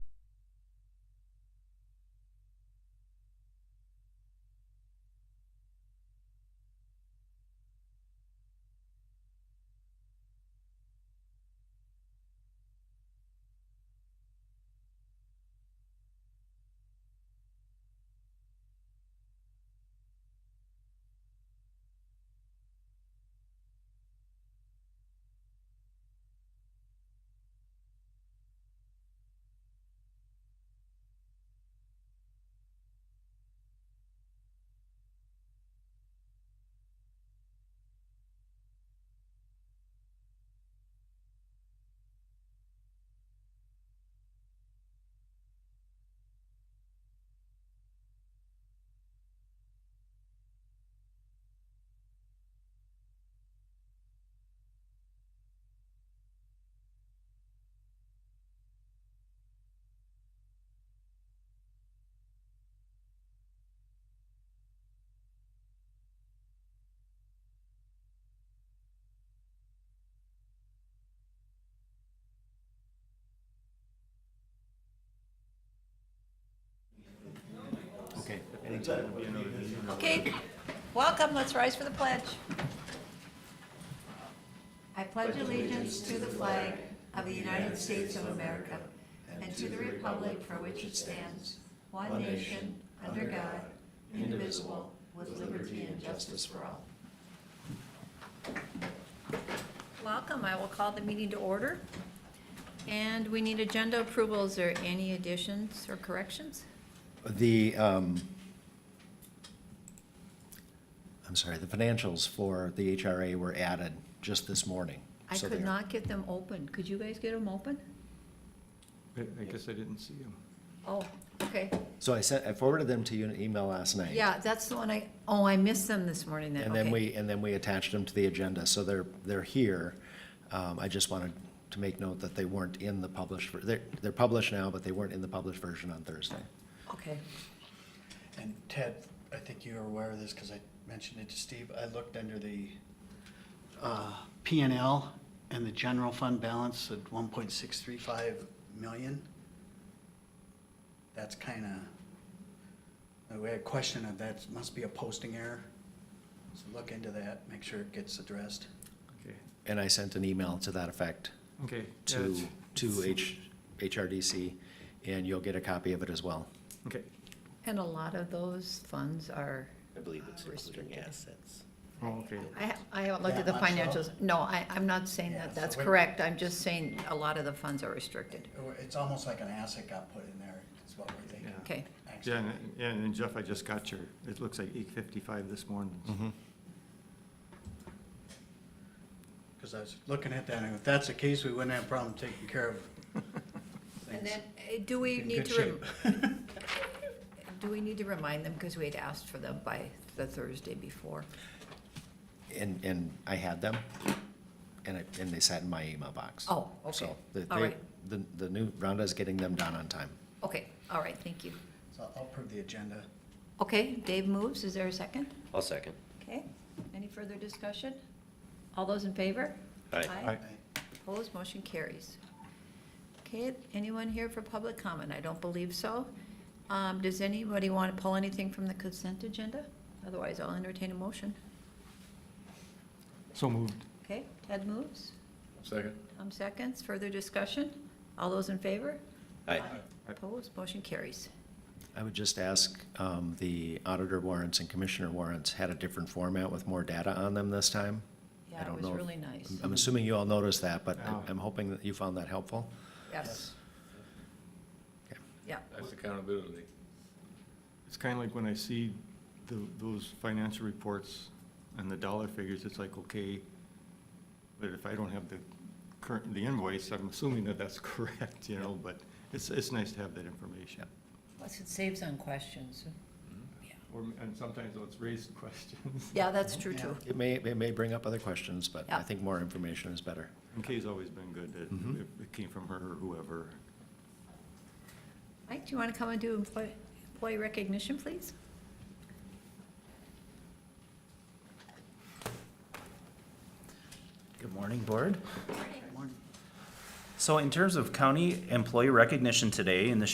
think that would be another busy. Okay, welcome, let's rise for the pledge. I pledge allegiance to the flag of the United States of America and to the republic for which it stands, one nation, under God, indivisible, with liberty and justice for all. Welcome, I will call the meeting to order. And we need agenda approvals or any additions or corrections? The, um, I'm sorry, the financials for the HRA were added just this morning. I So could they're- not get them open. Could you guys get them open? I I guess I didn't see him. Oh, okay. So I sent, I forwarded them to you in an email last night. Yeah, that's the one I, oh, I missed them this morning then, And then okay. we, and then we attached them to the agenda, so they're, they're here. Um, I just wanted to make note that they weren't in the published, ver- they're, they're published now, but they weren't in the published version on Thursday. Okay, And Ted, I think you're aware of this because I mentioned it to Steve. I looked under the uh, P and L and the general fund balance at one point six three five million. That's kind of, we had a question of that, must be a posting error. So look into that, make sure it gets addressed. Okay, And I sent an email to that effect okay. yeah, to, it's- to H, HRDC, and you'll get a copy of it as well. Okay. and a lot of those funds are, I believe it's including Restricted. assets. Oh, okay. I, ha- I haven't looked at the That much, financials. No, I, I'm not saying Yeah, that so that's we- correct. I'm just saying a lot of the funds are restricted. It's almost like an asset got put in there, is what we're thinking. Yeah. Okay. Yeah, and- yeah, and then Jeff, I just got your, it looks like eight fifty-five this morning. Mm-hmm. Because I was looking at that, and if that's the case, we wouldn't have a problem taking care of And things then, eh, do we in need good to, rem- shape. do we need to remind them, because we had asked for them by the Thursday before? And, and I had them, and I, and they sat in my email box. Oh, okay. So, the, All they, right. the, the new Rhonda is getting them done on time. Okay, all right, thank you. So I'll approve the agenda. Okay, Dave moves, is there a second? I'll second. Okay, any further discussion? All those in favor? Aye. Aye. Opposed, motion carries. Okay, anyone here for public comment? I don't believe so. Um, Does anybody want to pull anything from the consent agenda? Otherwise, I'll entertain a motion. So moved. Okay, Ted moves, Second. Tom seconds, further discussion? All those in favor? Aye. Opposed, motion carries. I would just ask, um, the auditor warrants and commissioner warrants had a different format with more data on them this time. I Yeah, it don't was know if- really nice. I'm assuming you all noticed that, but I'm- Oh. Yeah. I'm hoping that you found that helpful. Yes, Okay. yeah. That's accountability. It's kind of like when I see the, those financial reports and the dollar figures, it's like, okay, but if I don't have the current, the invoice, I'm assuming that that's correct, you know, but it's, it's nice to have that information. Plus, it saves on questions. Or, and sometimes it's raised questions. Yeah, that's true, too. It may, it may bring up other questions, but I Yeah. think more information is better. McKay's always been good, it, it came from her or whoever. Mike, do you want to come and do employ- employee recognition, please? Good morning, Board. Morning. So in terms of county employee recognition today, in the